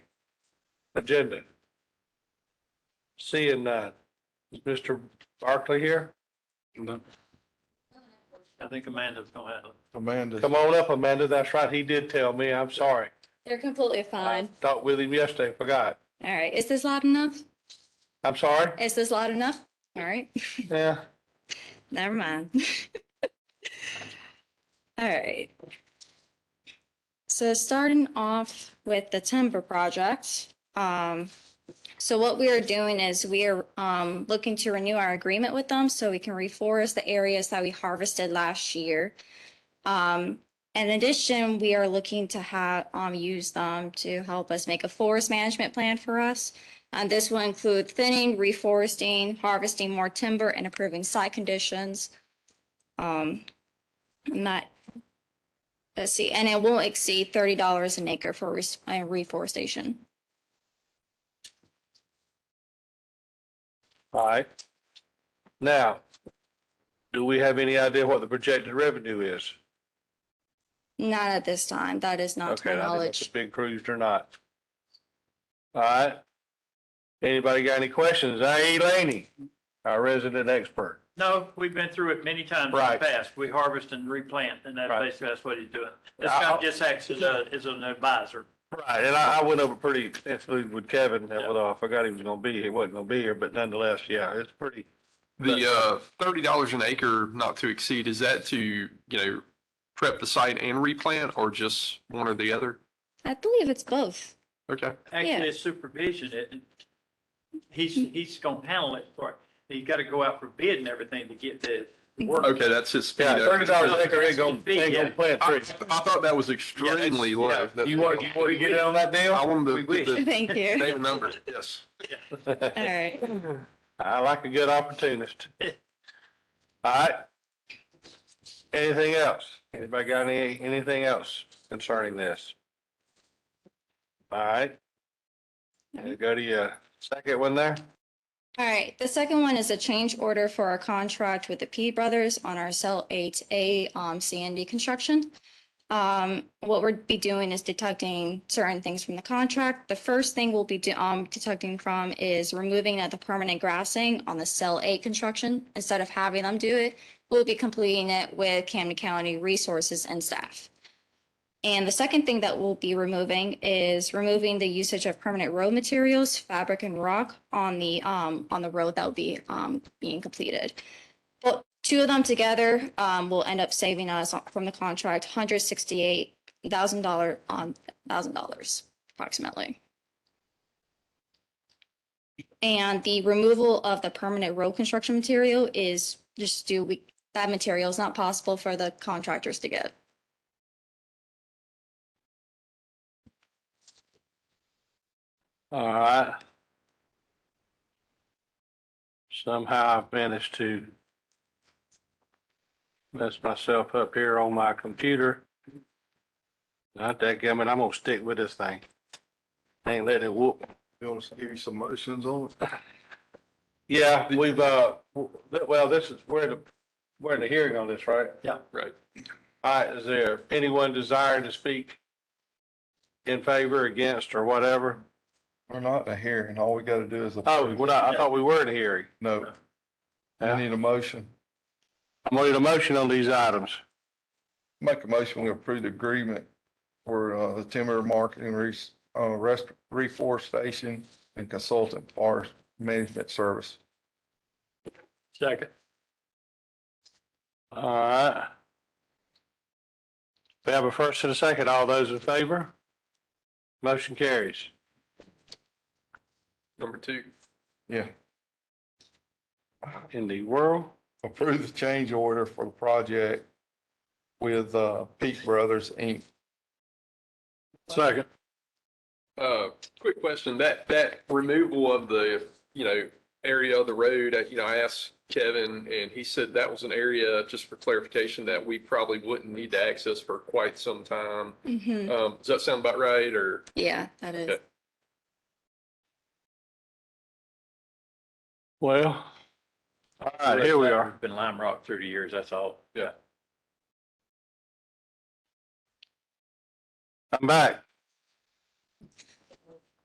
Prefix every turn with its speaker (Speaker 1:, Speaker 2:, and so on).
Speaker 1: agenda? Seeing none. Is Mr. Barclay here?
Speaker 2: I think Amanda's gonna handle it.
Speaker 3: Amanda,
Speaker 1: Come on up, Amanda. That's right. He did tell me. I'm sorry.
Speaker 4: They're completely fine.
Speaker 1: Talked with him yesterday, forgot.
Speaker 4: All right. Is this loud enough?
Speaker 1: I'm sorry.
Speaker 4: Is this loud enough? All right.
Speaker 1: Yeah.
Speaker 4: Never mind. All right. So starting off with the timber project, um, so what we are doing is we are, um, looking to renew our agreement with them so we can reforest the areas that we harvested last year. Um, in addition, we are looking to have, um, use them to help us make a forest management plan for us. And Uh, this will include thinning, reforesting, harvesting more timber, and improving site conditions. Um, and that, let's see, and it won't exceed thirty dollars an acre for res- uh, reforestation.
Speaker 1: All right. Now, do we have any idea what the projected revenue is?
Speaker 4: Not at this time. That is not to
Speaker 1: Okay, I
Speaker 4: my
Speaker 1: didn't know if
Speaker 4: knowledge.
Speaker 1: it's been cruised or not. All right. Anybody got any questions? I, Laney, our resident expert.
Speaker 2: No, we've been through it many times in the
Speaker 1: Right.
Speaker 2: past. We harvest and replant, and that's
Speaker 1: Right.
Speaker 2: basically, that's what he's doing. This
Speaker 1: I'll-
Speaker 2: guy just acts as a, as an advisor.
Speaker 1: Right, and I, I went over pretty extensively with Kevin,
Speaker 2: Yeah.
Speaker 1: although I forgot he was gonna be here, wasn't gonna be here, but nonetheless, yeah, it's pretty.
Speaker 5: The uh, thirty dollars an acre, not to exceed, is that to, you know, prep the site and replant or just one or the other?
Speaker 4: I believe it's both.
Speaker 5: Okay,
Speaker 4: Yeah.
Speaker 2: Actually, it's supervision, it, he's, he's gonna handle it for, it. he's gotta go out for bid and everything to get the work.
Speaker 5: okay, that's his.
Speaker 1: Yeah, thirty dollars an acre ain't gonna,
Speaker 2: Yeah.
Speaker 1: ain't gonna plant
Speaker 5: I I
Speaker 1: trees.
Speaker 5: thought that was extremely
Speaker 2: Yeah,
Speaker 5: low.
Speaker 2: yeah.
Speaker 5: That's-
Speaker 1: You want, you want to get in on that
Speaker 5: I
Speaker 1: deal?
Speaker 5: wanted
Speaker 2: We
Speaker 5: to, the
Speaker 4: Thank you.
Speaker 5: name and number, yes.
Speaker 4: All right.
Speaker 1: I like a good opportunist. All right. Anything else? Anybody got any, anything else concerning this? All right. You Go to your second one there.
Speaker 4: All right, the second one is a change order for our contract with the P Brothers on our cell eight A um CND construction. Um, what we'll be doing is detecting certain things from the contract. The first thing we'll be do- um detecting from is removing of the permanent grassing on the cell eight construction. Instead of having them do it, we'll be completing it with Camden County resources and staff. And the second thing that we'll be removing is removing the usage of permanent road materials, fabric and rock on the, um, on the road that will be, um, being completed. But two of them together, um, will end up saving us from the contract, hundred sixty-eight thousand dollar, on, thousand dollars approximately. And the removal of the permanent road construction material is just due, we, that material is not possible for the contractors to get.
Speaker 1: All right. Somehow I've managed to mess myself up here on my computer. Not that gammon, I'm gonna stick with this thing. Ain't let it whoop.
Speaker 3: you want to give you some motions on it?
Speaker 1: Yeah, we've, uh, w- well, this is, we're in the, we're in the hearing on this, right?
Speaker 2: Yeah.
Speaker 5: Right.
Speaker 1: All right, is there anyone desiring to speak in favor, against, or whatever?
Speaker 3: We're not in a hearing. All we got to do is.
Speaker 1: Oh, well, I, I thought we were in a hearing.
Speaker 3: No, I need a motion.
Speaker 1: I'm gonna need a motion on these items.
Speaker 3: Make a motion, we approve the agreement for uh, the timber marketing, res- uh, rest, reforestation and consultant forest management service.
Speaker 2: Second.
Speaker 1: All right. We have a first and a second. All those in favor? Motion carries.
Speaker 5: Number two.
Speaker 3: Yeah.
Speaker 1: In the world,
Speaker 3: Approve the change order for the project with uh, Peak Brothers, Inc.
Speaker 1: second.
Speaker 5: Uh, quick question, that, that removal of the, you know, area of the road, uh, you know, I asked Kevin and he said that was an area, just for clarification, that we probably wouldn't need to access for quite some time.
Speaker 4: Mhm.
Speaker 5: Um, does that sound about right or?
Speaker 4: Yeah, that is.
Speaker 5: Okay.
Speaker 1: Well, all right, here we are.
Speaker 2: Been Lime Rock thirty years, that's all.
Speaker 5: Yeah.
Speaker 1: I'm back.